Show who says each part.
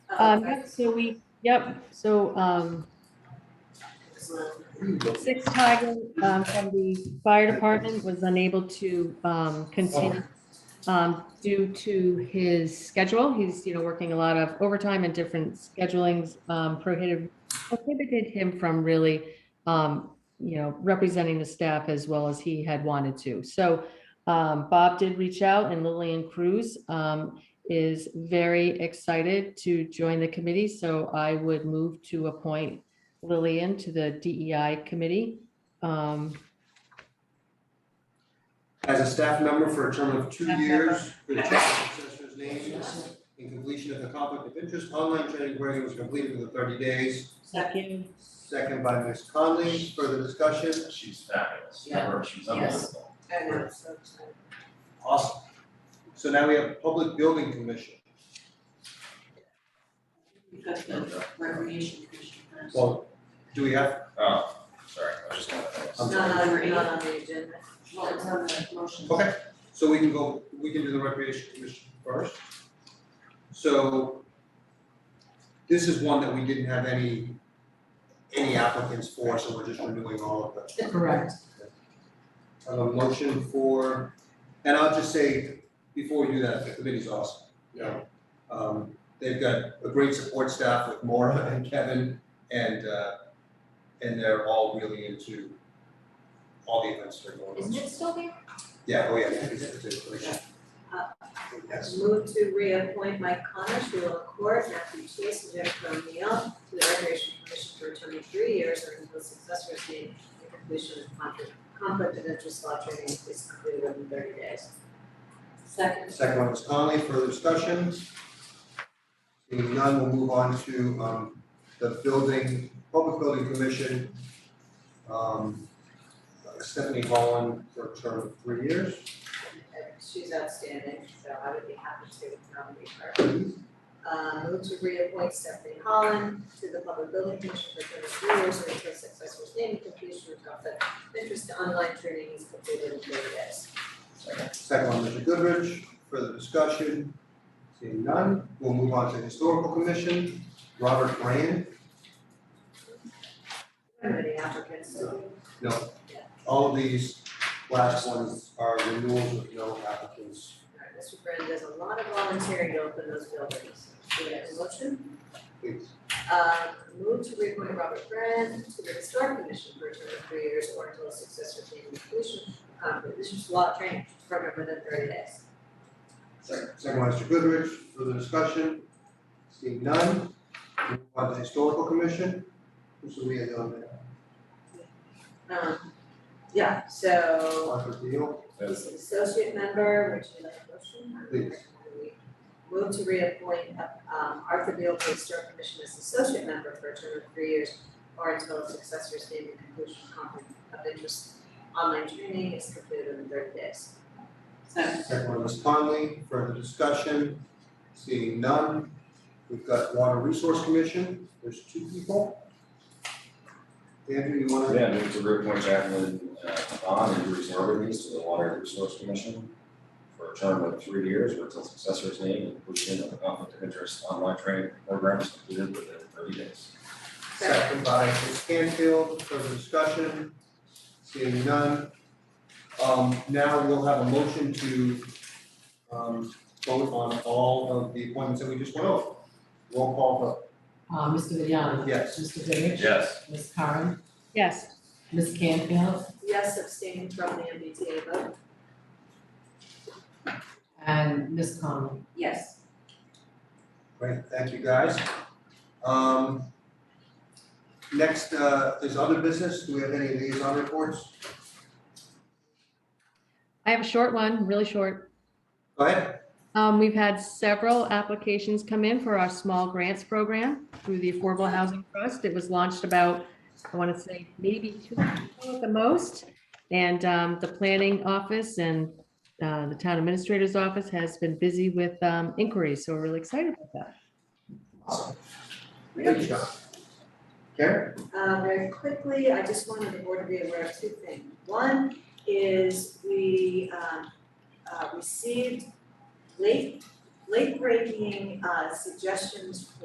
Speaker 1: Um, yep, so we, yep, so, um, Six Tiger, um, from the fire department was unable to, um, continue, um, due to his schedule. He's, you know, working a lot of overtime and different schedulings, um, prohibited, prohibited him from really, um, you know, representing the staff as well as he had wanted to. So, um, Bob did reach out and Lillian Cruz, um, is very excited to join the committee, so I would move to appoint Lillian to the DEI committee. Um,
Speaker 2: As a staff member for a term of two
Speaker 1: Staff
Speaker 2: years, for the check of successors' names and completion of the conflict of interest online training program was completed within thirty days.
Speaker 1: Second.
Speaker 2: Second by Ms. Conley, further discussion?
Speaker 3: She's fabulous.
Speaker 4: Yeah.
Speaker 3: Remember, she's
Speaker 4: Yes.
Speaker 3: unbelievable.
Speaker 4: I know, so excited.
Speaker 2: Awesome. So now we have Public Building Commission.
Speaker 4: We've got the recreation commission first.
Speaker 2: Well, do we have,
Speaker 3: Oh, sorry, I was just gonna.
Speaker 2: I'm
Speaker 4: It's Not on, the- not on the agenda, well, it's on the motion.
Speaker 2: Okay. so we can go, we can do the Recreation Commission first. So this is one that we didn't have any, any applicants for, so we're just renewing all of them.
Speaker 4: Correct.
Speaker 2: I have a motion for, and I'll just say, before we do that, the committee's awesome. Yeah. Um, they've got a great support staff with Maura and Kevin and, uh, and they're all really into all the events that are going on.
Speaker 4: Isn't it still there?
Speaker 2: Yeah, oh yeah, it's, it's, it's, it's-
Speaker 4: Uh,
Speaker 2: yes.
Speaker 4: Move to reappoint Mike Connors, Will Court, Matthew Chase, and Jennifer O'Neill to the Recreation Commission for a term of three years or until successors meet the completion of conflict, conflict of interest law training is completed within thirty days. Second.
Speaker 2: Second one was Conley, further discussion? Seeing none, we'll move on to, um, the building, Public Building Commission. Um, Stephanie Holland for a term of three years.
Speaker 4: And She's outstanding, so I would be happy to nominate her. Uh, move to reappoint Stephanie Holland to the Public Building Commission for thirty three years or until successor's name and completion of conflict of interest to online training is completed in thirty days.
Speaker 2: Second one, Mr. Goodrich, further discussion? Seeing none, we'll move on to the Historical Commission, Robert Brand,
Speaker 4: Any applicants?
Speaker 2: no, all of these last ones are renewals with no applicants.
Speaker 4: Alright, Mr. Brand does a lot of volunteering to open those buildings. Do we have a motion?
Speaker 2: Please,
Speaker 4: Uh, move to reappoint Robert Brand to the Historic Commission for a term of three years or until a successor can be completion, um, this is law training program within thirty days.
Speaker 2: second, second one, Mr. Goodrich, further discussion? Seeing none, we'll move on to the Historical Commission, Mr. Leah Dillon,
Speaker 4: Um, yeah, so
Speaker 2: Arthur Deal,
Speaker 4: he's an associate member, would you like a motion?
Speaker 2: Please.
Speaker 4: We Move to reappoint, um, Arthur Beal to the Historic Commission as associate member for a term of three years or until a successor's name and conclusion of conflict of interest online training is completed in thirty days. Second.
Speaker 2: second one, Ms. Conley, further discussion? Seeing none, we've got Water Resource Commission, there's two people. Andrew, you wanna?
Speaker 3: Yeah, move to reappoint Jacqueline uh, Bond and Bruce Norbertese to the Water Resource Commission for a term of three years or until successor's name and completion of the conflict of interest online training programs completed within thirty days.
Speaker 2: Second by Ms. Canfield, further discussion, seeing none. Um, now we'll have a motion to, um, vote on all of the appointments that we just went over. Roll call vote,
Speaker 5: Uh, Mr. Vignani?
Speaker 2: yes.
Speaker 5: Mr. Goodrich?
Speaker 3: Yes.
Speaker 5: Ms. Karen?
Speaker 1: Yes,
Speaker 5: Ms. Canfield?
Speaker 4: Yes, abstaining from the MBTA vote.
Speaker 5: And Ms. Conlon?
Speaker 4: Yes.
Speaker 2: Great, thank you guys. Um, next, uh, is other business, do we have any liaison reports?
Speaker 1: I have a short one, really short.
Speaker 2: Go ahead,
Speaker 1: Um, we've had several applications come in for our small grants program through the Affordable Housing Trust. It was launched about, I want to say, maybe two months ago at the most. And, um, the planning office and, uh, the town administrator's office has been busy with, um, inquiries, so we're really excited about that.
Speaker 2: good job. Karen,
Speaker 4: Uh, very quickly, I just wanted the board to be aware of two things. One is we, um, uh, received late, late breaking, uh, suggestions